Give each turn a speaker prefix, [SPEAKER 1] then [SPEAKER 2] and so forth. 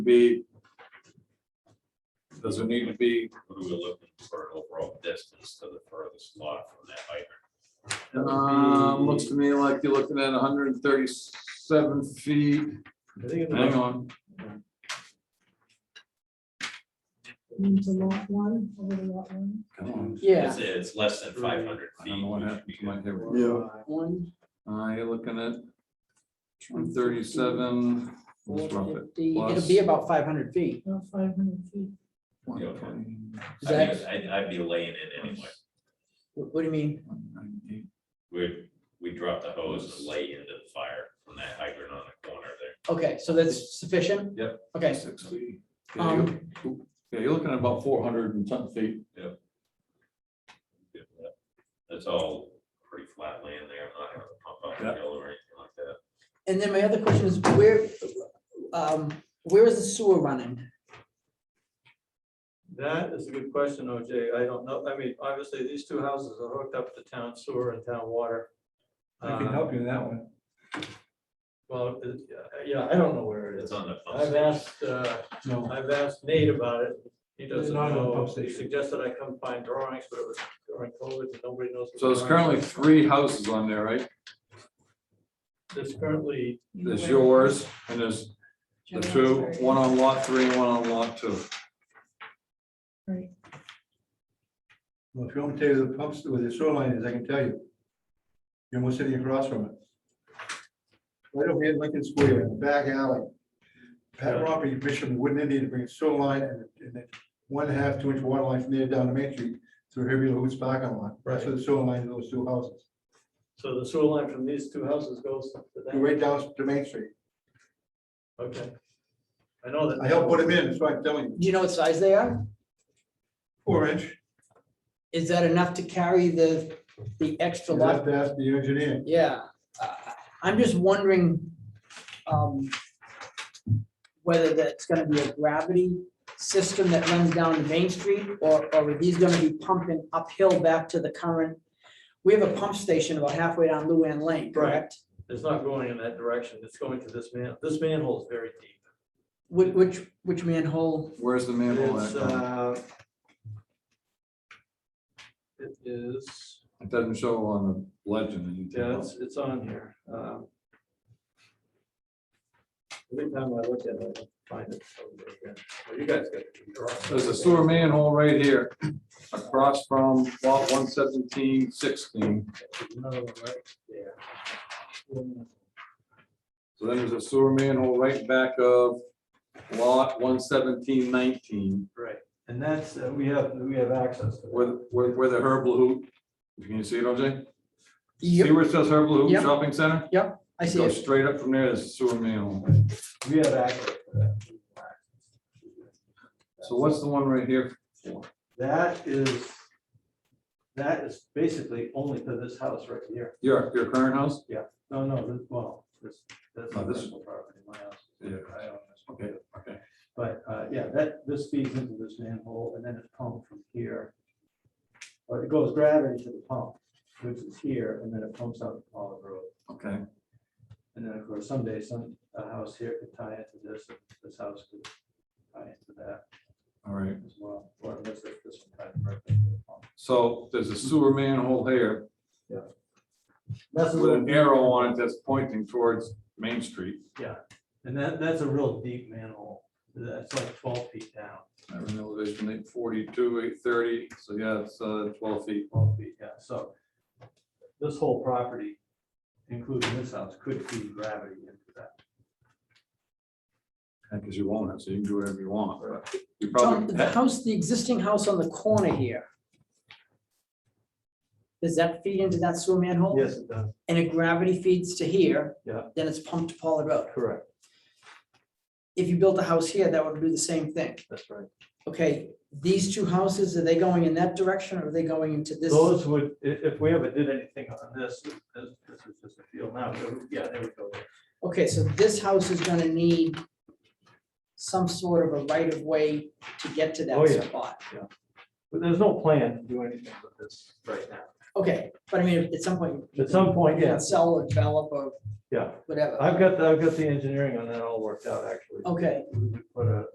[SPEAKER 1] be? Does it need to be?
[SPEAKER 2] We were looking for an overall distance to the furthest lot from that hydrant.
[SPEAKER 1] Um, looks to me like you're looking at hundred and thirty-seven feet.
[SPEAKER 3] I think it's
[SPEAKER 4] Um,
[SPEAKER 1] Hang
[SPEAKER 3] about-
[SPEAKER 1] on,
[SPEAKER 5] into lot one, over to lot one.
[SPEAKER 1] come on.
[SPEAKER 6] Yeah,
[SPEAKER 2] It's, it's less than five hundred
[SPEAKER 1] I
[SPEAKER 2] feet.
[SPEAKER 1] don't know what
[SPEAKER 2] we should
[SPEAKER 1] happened
[SPEAKER 2] be
[SPEAKER 1] to my
[SPEAKER 2] good.
[SPEAKER 1] camera.
[SPEAKER 3] Yeah.
[SPEAKER 6] one.
[SPEAKER 1] Uh, you're looking at one thirty-seven. let's rough it,
[SPEAKER 6] 450. It'll be about five hundred feet.
[SPEAKER 5] About five hundred feet.
[SPEAKER 1] 120,
[SPEAKER 6] Is
[SPEAKER 2] I
[SPEAKER 6] that,
[SPEAKER 2] think I'd, I'd be laying it anyway.
[SPEAKER 6] what do you mean?
[SPEAKER 1] 198.
[SPEAKER 2] We, we dropped the hose and lay into the fire from that hydrant on the corner there.
[SPEAKER 6] Okay, so that's sufficient?
[SPEAKER 1] Yep.
[SPEAKER 6] Okay,
[SPEAKER 1] Six Um, feet. Yeah, you're- yeah, you're looking at about four hundred and something feet.
[SPEAKER 2] That's all pretty flat land there. I'm not having to pump out
[SPEAKER 1] Yeah.
[SPEAKER 2] the hill or anything like that.
[SPEAKER 6] and then my other question is where, um, where is the sewer running?
[SPEAKER 3] That is a good question, OJ. I don't know. I mean, obviously, these two houses are hooked up to town sewer and town water.
[SPEAKER 4] I can
[SPEAKER 3] Uh,
[SPEAKER 4] help you with that one.
[SPEAKER 3] Well, it- yeah, I don't know where it
[SPEAKER 2] It's
[SPEAKER 3] is.
[SPEAKER 2] on the pump
[SPEAKER 3] I've
[SPEAKER 2] station.
[SPEAKER 3] asked, uh,
[SPEAKER 4] No,
[SPEAKER 3] I've asked Nate about it. He doesn't
[SPEAKER 4] not on the
[SPEAKER 3] know.
[SPEAKER 4] pump
[SPEAKER 3] He
[SPEAKER 4] station.
[SPEAKER 3] suggested I come find drawings, but it was during COVID, and nobody knows. what
[SPEAKER 1] So there's
[SPEAKER 3] drawings
[SPEAKER 1] currently
[SPEAKER 3] are.
[SPEAKER 1] three houses on there, right?
[SPEAKER 3] There's currently,
[SPEAKER 1] There's yours and there's the two, one on lot three and one on lot two.
[SPEAKER 5] Right,
[SPEAKER 4] well, if you want me to tell you the pumps, where the sewer line is, I can tell you. You're almost sitting across from it. Right over here, in Lincoln Square, in the back alley. Pat Robertson commissioned Wooden Indian to bring a sewer line and, and then one and a half, two inch water line from there down to Main Street through Herbie Lewis parking lot. That's where the sewer line, to those two houses,
[SPEAKER 3] so the sewer line from these two houses goes to that.
[SPEAKER 4] right down to Main Street.
[SPEAKER 3] Okay. I know that.
[SPEAKER 4] I helped put them in, that's why I'm telling you,
[SPEAKER 6] Do you know what size they are?
[SPEAKER 4] four inch.
[SPEAKER 6] Is that enough to carry the, the extra
[SPEAKER 4] You
[SPEAKER 6] lot?
[SPEAKER 4] have to ask the engineer.
[SPEAKER 6] Yeah, uh, I'm just wondering um, whether that's gonna be a gravity system that runs down to Main Street, or, or are these gonna be pumping uphill back to the current? We have a pump station about halfway down Luann Lane, correct?
[SPEAKER 3] It's not going in that direction. It's going to this man, this manhole is very deep.
[SPEAKER 6] Which, which, which manhole?
[SPEAKER 1] Where's the manhole?
[SPEAKER 3] It's,
[SPEAKER 1] at?
[SPEAKER 3] uh, It is,
[SPEAKER 1] It doesn't show on the legend.
[SPEAKER 3] yeah, it's, it's on here. Um, Every time I look at it, I find it. somewhere again. Well, You guys got. the drawing.
[SPEAKER 1] There's a sewer manhole right here across from lot one seventeen sixteen.
[SPEAKER 3] Another one right there.
[SPEAKER 1] So then there's a sewer manhole right back of lot one seventeen nineteen
[SPEAKER 3] Right, and that's, uh, we have, we have access to. that.
[SPEAKER 1] where, where, where the herbal hoop. Can you see it, OJ? See
[SPEAKER 6] Yep,
[SPEAKER 1] where it says herbal hoop
[SPEAKER 6] Yep.
[SPEAKER 1] shopping center?
[SPEAKER 6] I see
[SPEAKER 1] Go
[SPEAKER 6] it.
[SPEAKER 1] straight up from there, there's a sewer manhole.
[SPEAKER 3] We have access to that.
[SPEAKER 1] So what's the one right here?
[SPEAKER 3] That is, that is basically only to this house right here.
[SPEAKER 1] Your, your current house?
[SPEAKER 3] No, no, this, well, this, that's
[SPEAKER 1] Oh,
[SPEAKER 3] not
[SPEAKER 1] this-
[SPEAKER 3] this property, my house.
[SPEAKER 1] Yeah.
[SPEAKER 3] I own this one.
[SPEAKER 1] Okay, okay.
[SPEAKER 3] But, uh, yeah, that, this feeds into this manhole and then it's pumped from here. Or it goes gravity to the pump, which is here, and then it pumps out to Olive Road.
[SPEAKER 1] Okay,
[SPEAKER 3] And then, of course, someday some, a house here could tie into this, and this house could tie into that
[SPEAKER 1] all right.
[SPEAKER 3] as well. Or unless if this one ties directly to the pump.
[SPEAKER 1] So there's a sewer manhole here
[SPEAKER 3] That's a
[SPEAKER 1] with an
[SPEAKER 3] little-
[SPEAKER 1] arrow on it that's pointing towards Main Street.
[SPEAKER 3] And that, that's a real deep manhole. That's like twelve feet down,
[SPEAKER 1] I have an elevation eight forty-two, eight thirty, so yeah, it's uh, twelve feet.
[SPEAKER 3] twelve feet, yeah, so. This whole property, including this house, could feed gravity into that.
[SPEAKER 1] Because you own it, so you can do whatever you want, but you
[SPEAKER 6] Tom,
[SPEAKER 1] probably,
[SPEAKER 6] the
[SPEAKER 1] that-
[SPEAKER 6] house, the existing house on the corner here. Does that feed into that sewer manhole?
[SPEAKER 3] Yes, it does.
[SPEAKER 6] And if gravity feeds to here.
[SPEAKER 3] Yeah.
[SPEAKER 6] Then it's pumped to Pollard Road.
[SPEAKER 3] Correct,
[SPEAKER 6] if you built a house here, that would do the same thing.
[SPEAKER 3] that's right.
[SPEAKER 6] Okay, these two houses, are they going in that direction or are they going into this?
[SPEAKER 3] Those would, i- if we ever did anything on this, this, this is just a field now, so, yeah, there we go.
[SPEAKER 6] Okay, so this house is gonna need some sort of a right of way to get to
[SPEAKER 3] Oh,
[SPEAKER 6] that
[SPEAKER 3] yeah.
[SPEAKER 6] spot.
[SPEAKER 3] But there's no plan to do anything with this right now.
[SPEAKER 6] Okay, but I mean, at some point. you
[SPEAKER 3] At some point,
[SPEAKER 6] can
[SPEAKER 3] yeah.
[SPEAKER 6] Sell or develop or.
[SPEAKER 3] Yeah.
[SPEAKER 6] Whatever, Oh.
[SPEAKER 3] I've got, the- I've got the engineering on that all worked out, actually.
[SPEAKER 6] okay.
[SPEAKER 3] We- we Put a,